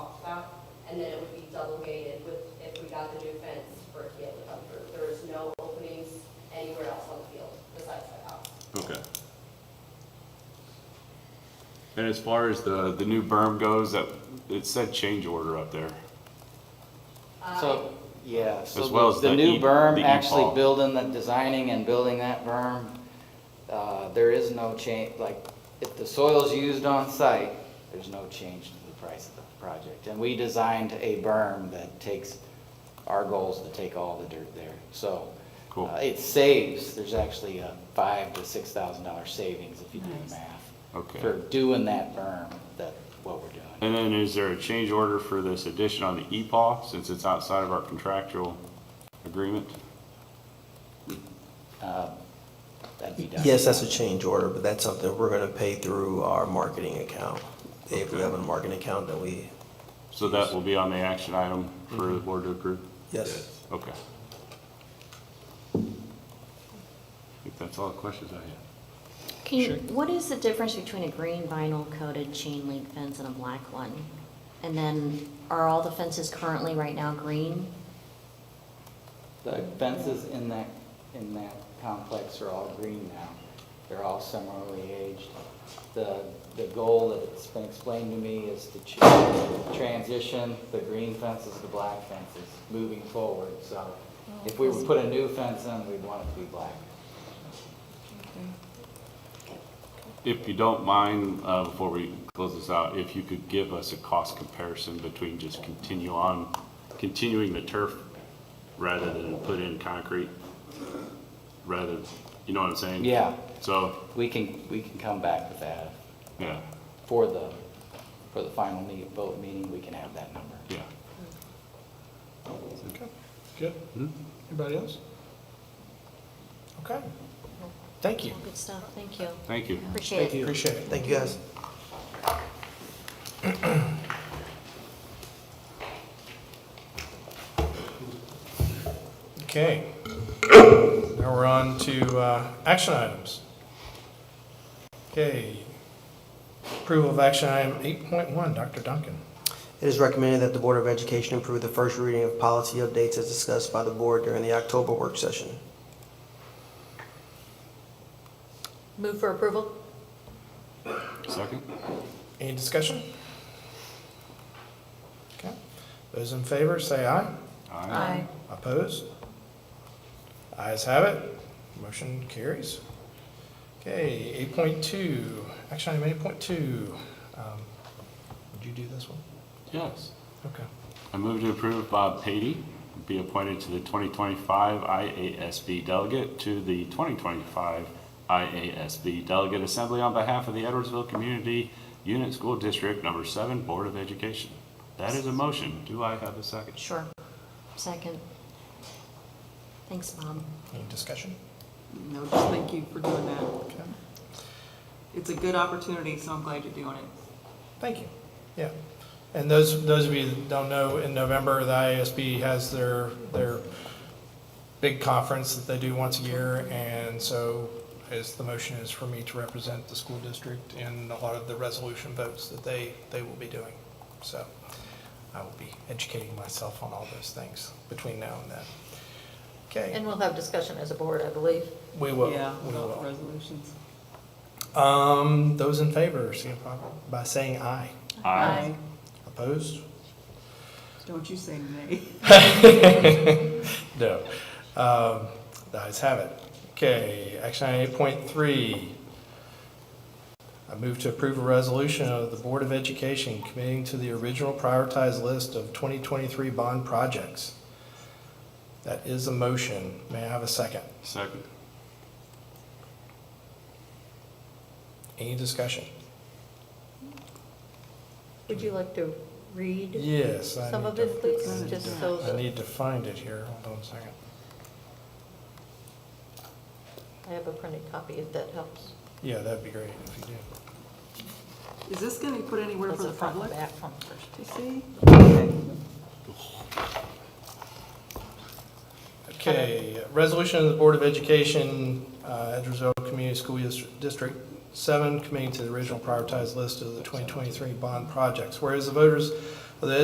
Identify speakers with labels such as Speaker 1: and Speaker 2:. Speaker 1: double gated with, if we got the new fence for it to be able to come through. There is no openings anywhere else on the field besides that house.
Speaker 2: Okay. And as far as the, the new berm goes, that, it said change order up there.
Speaker 1: Uh, Um,
Speaker 3: So, yeah, so
Speaker 2: As well as
Speaker 3: the-
Speaker 2: the
Speaker 3: the new
Speaker 2: e-
Speaker 3: berm,
Speaker 2: the
Speaker 3: actually
Speaker 2: e-pol.
Speaker 3: building that, designing and building that berm, uh, there is no change, like, if the soil's used on site, there's no change to the price of the project. And we designed a berm that takes, our goal is to take all the dirt there, so.
Speaker 2: Cool.
Speaker 3: uh, It saves, there's actually a five to six thousand dollar savings if you do the math.
Speaker 2: Okay.
Speaker 3: For doing that berm, that, what we're doing.
Speaker 2: And then is there a change order for this addition on the E EPAW, since it's outside of our contractual agreement?
Speaker 3: Uh, That'd be done.
Speaker 4: Yes, that's a change order, but that's something we're gonna pay through our marketing account. If we have a marketing account that we,
Speaker 2: So that will be on the action item for the board to approve?
Speaker 4: yes.
Speaker 2: Okay. I think that's all the questions I have.
Speaker 5: Can you, what is the difference between a green vinyl coated chain link fence and a black one? And then are all the fences currently right now green?
Speaker 3: The fences in that, in that complex are all green now. They're all similarly aged. The, the goal that's been explained to me is to ch- transition the green fences to black fences moving forward. So if we were to put a new fence in, we'd want it to be black.
Speaker 2: If you don't mind, uh, before we close this out, if you could give us a cost comparison between just continue on, continuing the turf rather than put in concrete, rather, you know what I'm saying?
Speaker 3: Yeah.
Speaker 2: So,
Speaker 3: We can, we can come back with that
Speaker 2: yeah,
Speaker 3: for the, for the final me- vote meeting, we can have that number.
Speaker 2: yeah.
Speaker 6: Okay, good.
Speaker 2: Hmm?
Speaker 6: Anybody else? Okay. Thank you.
Speaker 5: All Good stuff, thank you.
Speaker 2: Thank you.
Speaker 5: Appreciate it.
Speaker 6: Appreciate it.
Speaker 4: Thank you, guys.
Speaker 6: Okay. Now we're on to uh, action items. Okay. Approval of action item 8.1, Dr. Duncan.
Speaker 4: It is recommended that the Board of Education approve the first reading of policy updates as discussed by the board during the October work session.
Speaker 5: Move for approval?
Speaker 2: Second?
Speaker 6: Any discussion? Okay. Those in favor, say aye.
Speaker 5: Aye.
Speaker 6: Opposed? Ayes have it. Motion carries. Okay, eight point two, action item eight point two. Um, Would you do this one?
Speaker 2: Yes.
Speaker 6: Okay.
Speaker 2: I move to approve Bob Patey be appointed to the 2025 IASB delegate to the 2025 IASB Delegate Assembly on behalf of the Edwardsville Community Unit School District Number 7 Board of Education. That is a motion. Do I have a second?
Speaker 5: Sure. Second. Thanks, Bob.
Speaker 6: Any discussion?
Speaker 7: No, just thank you for doing that.
Speaker 6: Okay.
Speaker 7: It's a good opportunity, so I'm glad you're doing it.
Speaker 6: Thank you. Yeah. And those, those of you that don't know, in November, the IASB has their, their big conference that they do once a year. And so as the motion is for me to represent the school district in a lot of the resolution votes that they, they will be doing. So I will be educating myself on all those things between now and then. Okay,
Speaker 8: And we'll have discussion as a board, I believe.
Speaker 6: we will.
Speaker 7: Yeah,
Speaker 6: we
Speaker 7: about the
Speaker 6: will.
Speaker 7: resolutions.
Speaker 6: Um, those in favor, signify by saying aye.
Speaker 8: Aye.
Speaker 6: Opposed?
Speaker 7: Don't you say nay.
Speaker 6: No. Um, The ayes have it. Okay, action item eight point three. I move to approve a resolution of the Board of Education committing to the original prioritized list of twenty twenty-three bond projects. That is a motion. May I have a second?
Speaker 2: Second.
Speaker 6: Any discussion?
Speaker 8: Would you like to read
Speaker 6: Yes. I
Speaker 8: some
Speaker 6: need
Speaker 8: of
Speaker 6: to-
Speaker 8: it, please, just so
Speaker 6: I
Speaker 8: that
Speaker 6: need to find it here. Hold on a second.
Speaker 8: I have a printed copy, if that helps?
Speaker 6: Yeah, that'd be great if you do.
Speaker 7: Is this gonna be put anywhere for
Speaker 8: That's
Speaker 7: the
Speaker 8: a front and
Speaker 7: public
Speaker 8: Back from first.
Speaker 7: to see?
Speaker 6: Okay, resolution of the Board of Education, uh, Edwardsville Community School Dis- District 7, committing to the original prioritized list of the 2023 bond projects. Whereas the voters